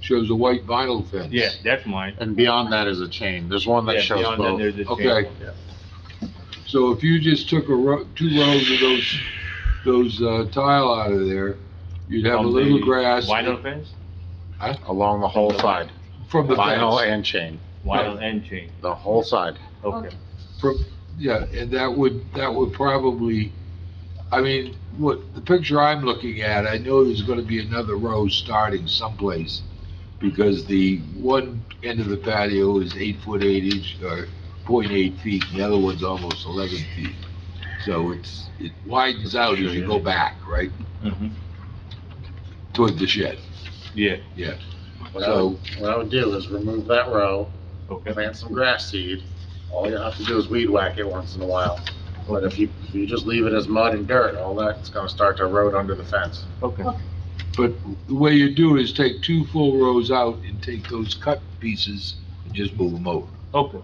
shows a white vinyl fence. Yeah, that's mine. And beyond that is a chain. There's one Yeah, that shows beyond that, both. there's a chain. Okay. Yeah. So if you just took a row, two rows of those, those uh, tile out of there, you'd have a From little the grass Vinyl fence, Along the whole side, from the vinyl fence. and chain, vinyl and chain, the whole side. okay. From- Yeah, and that would, that would probably, I mean, what, the picture I'm looking at, I know there's gonna be another row starting someplace because the one end of the patio is eight foot eight inch, or point eight feet, and the other one's almost eleven feet. So it's, it widens out as you go back, right, Mhm. toward the shed. Yeah, What I would, So- what I would do is remove that row, okay, plant some grass seed. All you have to do is weed whack it once in a while. But if you, if you just leave it as mud and dirt, all that's gonna start to erode under the fence. okay. But the way you do is take two full rows out and take those cut pieces and just move them over. Okay.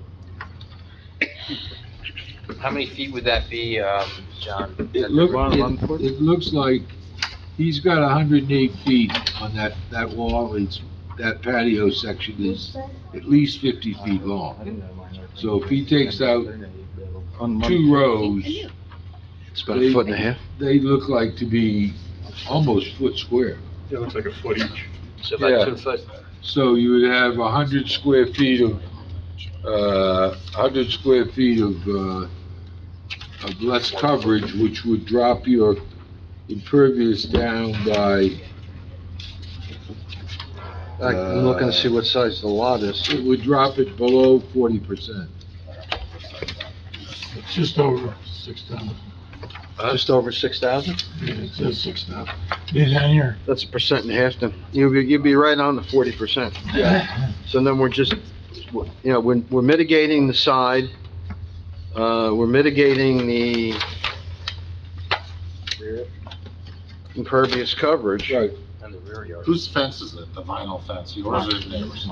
How many feet would that be, um, John? It look, Ron, one it, foot? it looks like he's got hundred and eight feet on that, that wall, it's, that patio section is at least fifty feet long. So if he takes out Two rows, It's about a foot and a half. they look like to be almost foot square. It looks like a foot each. So Yeah. about two foot, So you would have a hundred square feet of, uh, hundred square feet of, uh, of less coverage, which would drop your impervious down by, I'm looking to see what size the lot is. uh, it would drop it below forty percent. It's just over six thousand. Just over six thousand? It says six thousand. These on here. That's a percent and a half then. You'd be, you'd be right on the forty percent. So then we're just, you know, we're, we're mitigating the side, uh, we're mitigating the impervious coverage. Right, and the rear yard. Whose fence is it? The vinyl fence? Yours or the neighbor's?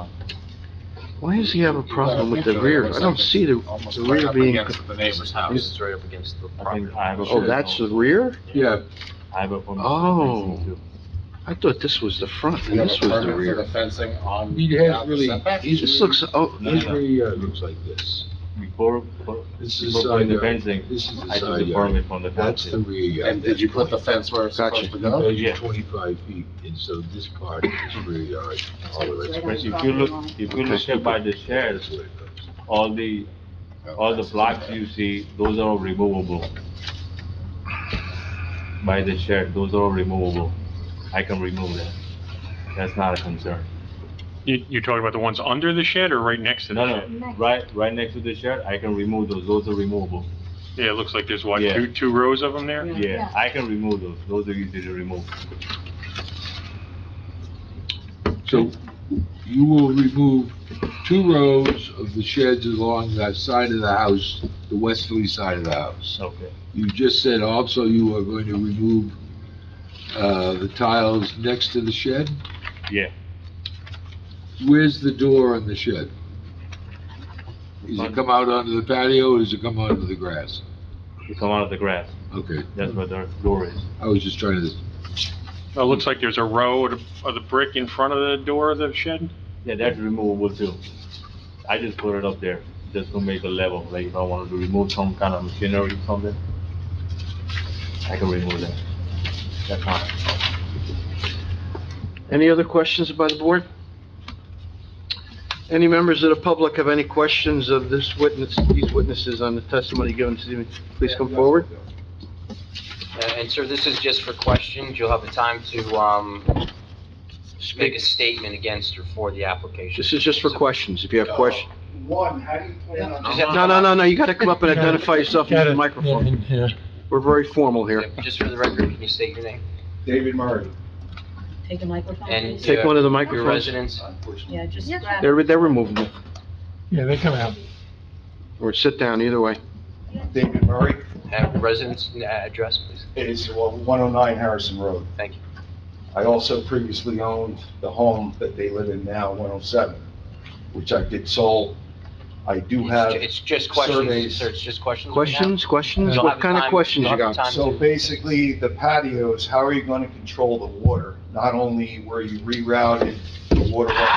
Why does he have a problem with the rear? I don't see the, Almost the right rear up being, against the neighbor's This house. is right up against the I think property. I have a. oh, that's the rear? yeah, I have a permit. Oh. I thought this was the front You and have this a was the permit for rear. the fencing on. he has without the really, setback? he's This looks, oh, No, His no. rear yard looks like this. Before, before This is before side putting the yard, fencing, this is the I took side the yard. permit from the That's the council. rear yard. And did you put the fence where it's Gotcha. supposed to go? Those Yeah. are twenty-five feet, and so this part is rear yard, all of it's But if you look, if you look at by the shares, all the, all the blocks you see, those are all removable. By the shed, those are all removable. I can remove that. That's not a concern. You, you're talking about the ones under the shed or right next to No, the shed? no, right, right next to the shed, I can remove those, those are removable. Yeah, it looks like there's what, Yeah. two, two rows of them there? Yeah, I can remove those, those are easy to remove. So you will remove two rows of the sheds along that side of the house, the westerly side of the house. Okay. You just said also you are going to remove, uh, the tiles next to the shed? Yeah. Where's the door on the shed? Does it come out onto the patio or does it come onto the grass? You come out of the grass, Okay, that's where the door is. I was just trying to, It looks like there's a row of, the- of the brick in front of the door of the shed? Yeah, that's removable too. I just put it up there, just to make a level, like if I wanted to remove some kind of machinery or something, I can remove that. That's not, any other questions by the board? Any members of the public have any questions of this witness, these witnesses on the testimony given to me? Please come forward. Uh, And sir, this is just for questions, you'll have the time to, um, make a statement against or for the application. This is just for questions, if you have questions. One, how do you plan on? Just have to- No, no, no, no, you gotta come up and identify yourself into the microphone. Yeah. We're very formal here. Yeah, Just for the record, can you state your name? David Murray. Take a microphone, And- please. Take one of the Your microphones. residence? Yeah, just grab They're, they're removable, Yeah, they come out. or sit down, either way. David Murray. Uh, Residence and, uh, address, please. It is uh, 109 Harrison Road. Thank you. I also previously oh owned the home that they live in now, 107, which I did sold I do It's have ju- It's just questions, surveys. sir, it's just questions. we have. Questions, questions? You'll have What the kind of time- questions you'll you have the got? time So to- basically, the patios, how are you gonna control the water? Not only where you rerouted the water